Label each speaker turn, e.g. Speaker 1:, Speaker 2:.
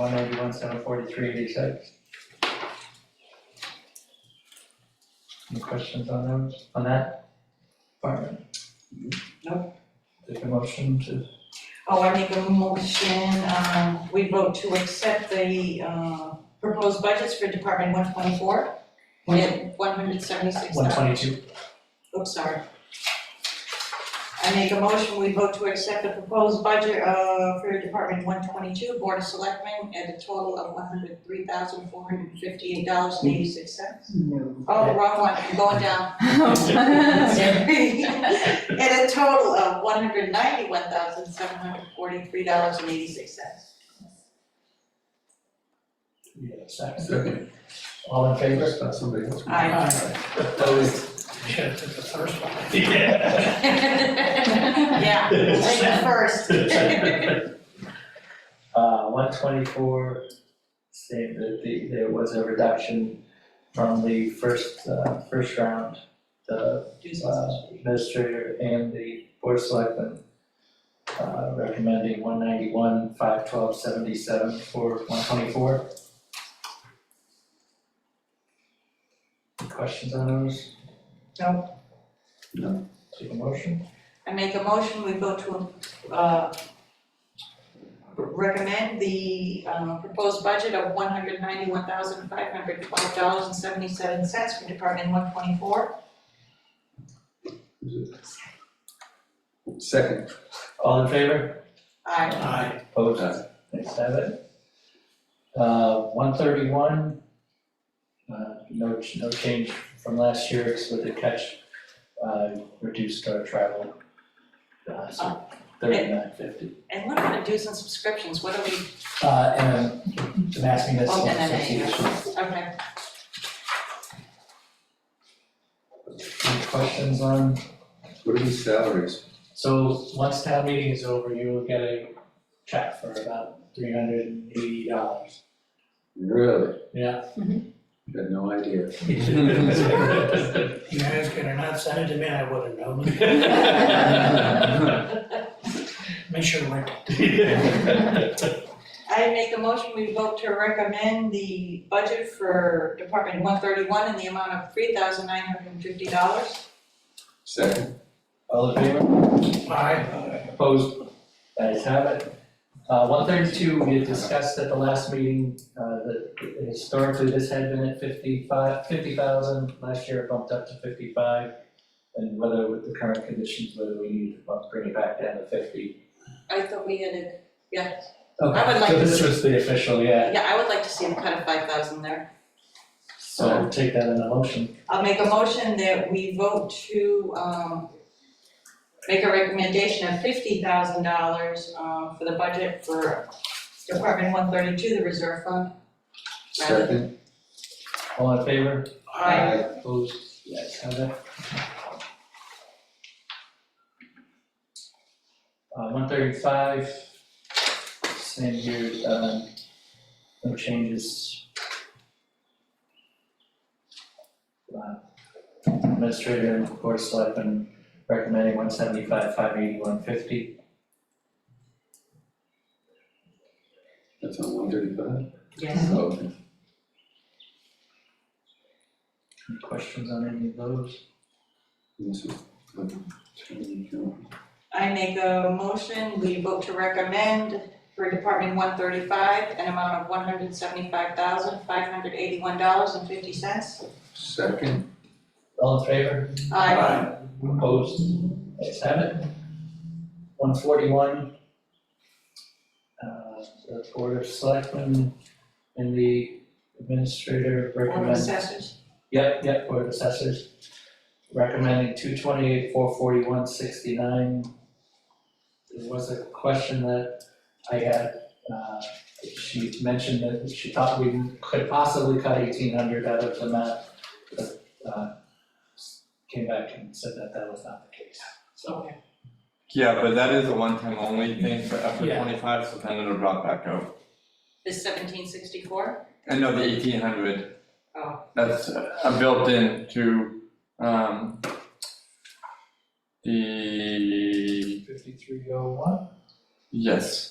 Speaker 1: one ninety-one, seven forty-three, eighty-six. Any questions on those, on that department?
Speaker 2: Nope.
Speaker 1: Take a motion to,
Speaker 2: Oh, I make a motion, um, we vote to accept the, uh, proposed budgets for Department one twenty-four. Yeah, one hundred seventy-six
Speaker 1: one twenty-two,
Speaker 2: Oops, sorry. I make a motion, we vote to accept the proposed budget, uh, for Department one twenty-two, Board of Selectmen, at a total of one hundred three thousand four hundred fifty-eight dollars and eighty-six cents.
Speaker 3: No.
Speaker 2: Oh, wrong one, I'm going down. At a total of one hundred ninety-one thousand seven hundred forty-three dollars and eighty-six cents.
Speaker 1: yeah, second.
Speaker 4: Second,
Speaker 1: All in favor?
Speaker 4: that's not somebody else.
Speaker 1: Opposed? Yeah, that's the first one.
Speaker 4: Yeah.
Speaker 2: Yeah, like the first.
Speaker 1: Uh, one twenty-four, saying that the, there was a reduction from the first, uh, first round. The uh, administrator and the board of selectmen, uh, recommending one ninety-one, five twelve, seventy-seven for one twenty-four. Questions on those?
Speaker 2: No.
Speaker 4: No.
Speaker 1: Take a motion,
Speaker 2: I make a motion, we vote to, uh, recommend the, uh, proposed budget of one hundred ninety-one thousand five hundred twelve dollars and seventy-seven cents for Department one twenty-four.
Speaker 4: Second.
Speaker 1: all in favor?
Speaker 2: Aye.
Speaker 1: Aye. Opposed?
Speaker 4: Aye.
Speaker 1: Next have it. Uh, one thirty-one, uh, no, ch- no change from last year, it's with the catch, uh, reduced our travel. Uh, so thirty-nine fifty.
Speaker 2: And what about dues and subscriptions, what are we,
Speaker 1: Uh, and um, the Mass Municipal
Speaker 2: Oh, no, no, no,
Speaker 1: Association.
Speaker 2: okay,
Speaker 1: Any questions on,
Speaker 4: What are these salaries?
Speaker 1: so once town meeting is over, you will get a check for about three hundred and eighty dollars.
Speaker 4: Really?
Speaker 1: Yeah.
Speaker 4: Had no idea.
Speaker 5: You guys could have not sent it to me, I would have known. Make sure we're
Speaker 2: I make a motion, we vote to recommend the budget for Department one thirty-one in the amount of three thousand nine hundred and fifty dollars.
Speaker 4: Second,
Speaker 1: All in favor?
Speaker 5: Aye.
Speaker 1: Opposed? Guys have it. Uh, one thirty-two, we had discussed at the last meeting, uh, that historically this had been at fifty-five, fifty thousand, last year it bumped up to fifty-five. And whether with the current conditions, whether we need to bump, bring it back down to fifty.
Speaker 2: I thought we had it, yeah,
Speaker 1: Okay,
Speaker 2: I would like
Speaker 1: So
Speaker 2: to
Speaker 1: this
Speaker 2: see-
Speaker 1: was the official, yeah,
Speaker 2: yeah, I would like to see them cut a five thousand there.
Speaker 1: so we'll take that in a motion.
Speaker 2: I'll make a motion that we vote to, um, make a recommendation of fifty thousand dollars, uh, for the budget for Department one thirty-two, the reserve fund. rather-
Speaker 4: second.
Speaker 1: All in favor?
Speaker 2: Aye.
Speaker 1: Opposed? Yes, have it. Uh, one thirty-five, same here, um, no changes. Uh, Administrator and board of selectmen recommending one seventy-five, five eighty, one fifty.
Speaker 4: That's on one thirty-five?
Speaker 2: Yes.
Speaker 4: Okay.
Speaker 1: Any questions on any of those?
Speaker 4: This is, like, twenty, twenty.
Speaker 2: I make a motion, we vote to recommend for Department one thirty-five, an amount of one hundred seventy-five thousand, five hundred eighty-one dollars and fifty cents.
Speaker 4: Second.
Speaker 1: All in favor?
Speaker 2: I
Speaker 1: Opposed? Ayes have it. One forty-one. Uh, the Board of Selectmen and the Administrator
Speaker 2: Board of
Speaker 1: recommend.
Speaker 2: Assessors,
Speaker 1: Yep, yep, Board of Assessors recommending two twenty-eight, four forty-one, sixty-nine. There was a question that I had, uh, she mentioned that she thought we could possibly cut eighteen hundred out of the map. but, uh, Came back and said that that was not the case.
Speaker 2: so,
Speaker 6: Yeah, but that is a one-time only thing for after
Speaker 1: Yeah.
Speaker 6: twenty-five, so then it'll drop back out.
Speaker 2: is seventeen sixty-four?
Speaker 6: And no, the eighteen hundred.
Speaker 2: Oh.
Speaker 6: That's uh, built in to, um, the,
Speaker 1: Fifty-three oh one?
Speaker 6: yes.